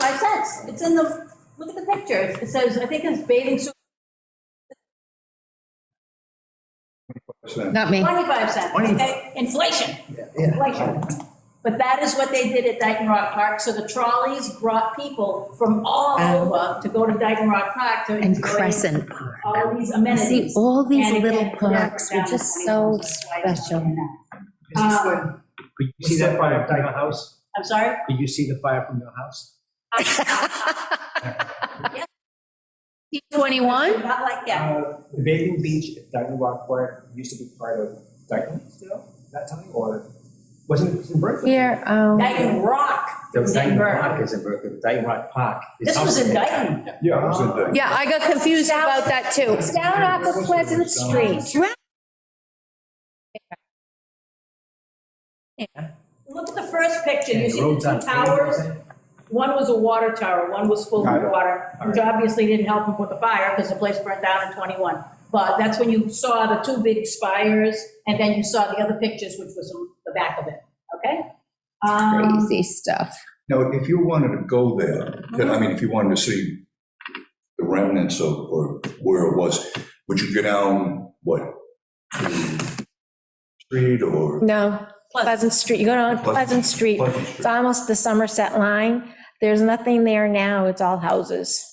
yes, it's in the, look at the pictures. It says, I think it's bathing suit, So, Not me. 25 cents, okay? Inflation, inflation. But that is what they did at Dyken Rock Park, so the trolleys brought people from all Oh. over to go to Dyken Rock Park to. And enjoy Crescent Park. All these amenities. See, all these And little again, parks yeah, were just that so was why I was special. doing that. Um, Could you see that fire from your house? I'm sorry? Could you see the fire from your house? T21? Not like that. Uh, The bathing beach at Dyton Rock Park used to be part of Dyton still, that time, or wasn't it in Berkeley? Here, um, Dyken Rock was in Berkeley. is in Berkeley, Dyton Rock Park. is This was in also- Dyken. Yeah, I was in there. yeah, I got confused about that too. It's down off of Pleasant Street. Look at the first picture, you And see the the roads on two fire, towers? isn't it? One was a water tower, one was full Got of it. water, All which obviously didn't help them with the fire because the place burned down in 21. But that's when you saw the two big spires, and then you saw the other pictures, which was the back of it, okay? Um, Crazy stuff. Now, if you wanted to go there, then, I mean, if you wanted to see the remnants of, or where it was, would you go down, what? to Street or No, Pleasant Street, you go down Pleasant Street. Pleasant It's Street? almost the Somerset line. There's nothing there now, it's all houses.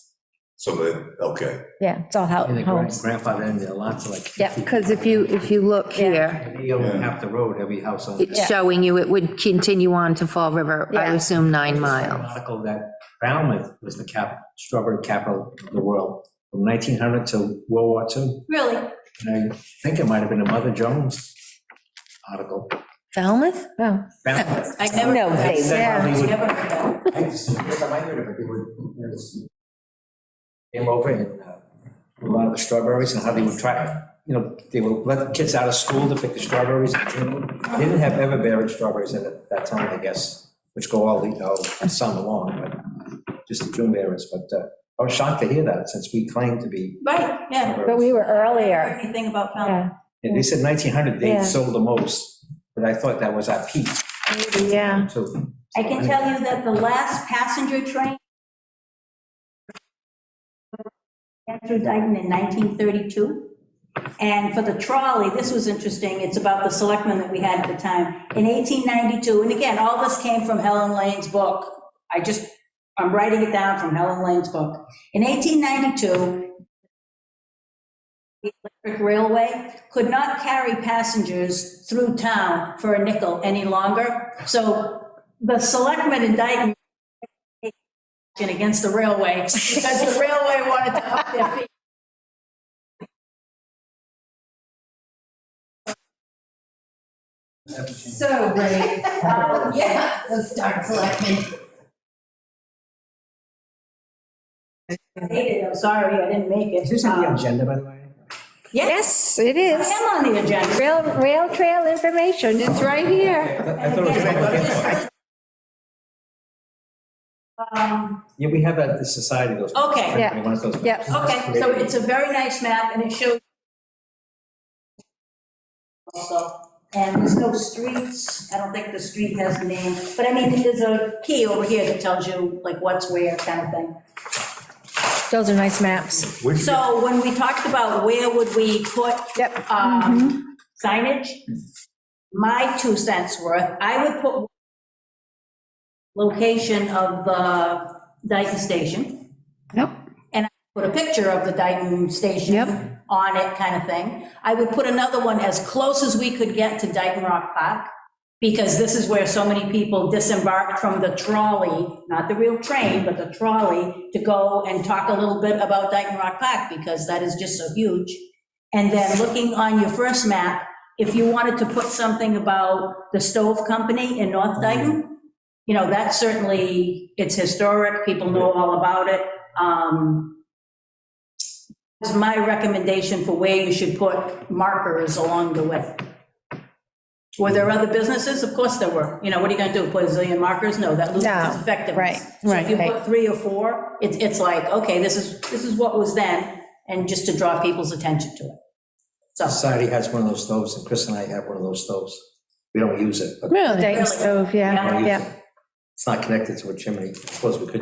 So, that- okay, Yeah, it's all hou- And the grand- homes. grandfather in there, lots of like. Yeah, Because if you, if you look here, They own half the road, every house owns. it's showing you it would continue on to Fall River, I Yeah. assume nine There's an miles. Article that Falmouth was the cap, strawberry capital of the world, from 1900 to World War II. Really? And I think it might have been a Mother Jones article. Falmouth? Oh, Falmouth. I never. No, heard they that. weren't. Never heard that. I just- first time I heard of it, they would- it was- Came over and uh, a lot of the strawberries and how they would try, you know, they would let the kids out of school to pick the strawberries in June. They Didn't have ever-bearing strawberries in it that time, I guess, which go all the, uh, summer long, but just the June berries. But uh, I was shocked to hear that since we claim to be. Right, yeah. But we were earlier. Anything about Falmouth? Yeah, And they said 1900, they Yeah. sold the most, but I thought that was our peak. yeah. too. I can tell you that the last passenger train went through Dayton in 1932. And for the trolley, this was interesting, it's about the selectmen that we had at the time, in 1892. And again, all this came from Helen Lane's book. I just, I'm writing it down from Helen Lane's book. In 1892, the electric railway could not carry passengers through town for a nickel any longer. So the selectmen in Dayton action against the railway because the railway wanted to up their fee. So great. Um, Yeah, let's start selectmen. Hated it. I'm sorry, I didn't make it. Is this on the Um, agenda, by the way? Yes, Yes, it I is. am on the agenda. Rail, rail trail information. It's right here. I thought it was. Um, Yeah, we have at the society those. Okay. Yeah. One of those- Yeah. Okay, so it's a very nice map and it shows also, and there's no streets. I don't think the street has a name, but I mean, there's a key over here that tells you like what's where kind of thing. Those are nice maps. Where'd you- So when we talked about where would we put Yep. Mm-hmm. um, signage, my two cents worth, I would put location of the Dayton Station. Yep. And I put a picture of the Dayton Station Yep. on it, kind of thing. I would put another one as close as we could get to Dayton Rock Park, because this is where so many people disembarked from the trolley, not the real train, but the trolley, to go and talk a little bit about Dayton Rock Park, because that is just so huge. And then looking on your first map, if you wanted to put something about the stove company in North Dayton, you know, that certainly, it's historic, people know all about it. Um, It's my recommendation for where you should put markers along the way. Were there other businesses? Of course there were. You know, what are you gonna do, put a zillion markers? No, that loses No, its effectiveness. So right, if you right, right. put three or four, it's, it's like, okay, this is, this is what was then, and just to draw people's attention to it. So, Society has one of those stoves, and Chris and I have one of those stoves. We don't use it, but Really? Dayton Really? stove, yeah, we use yeah. it. It's not connected to a chimney. I suppose we could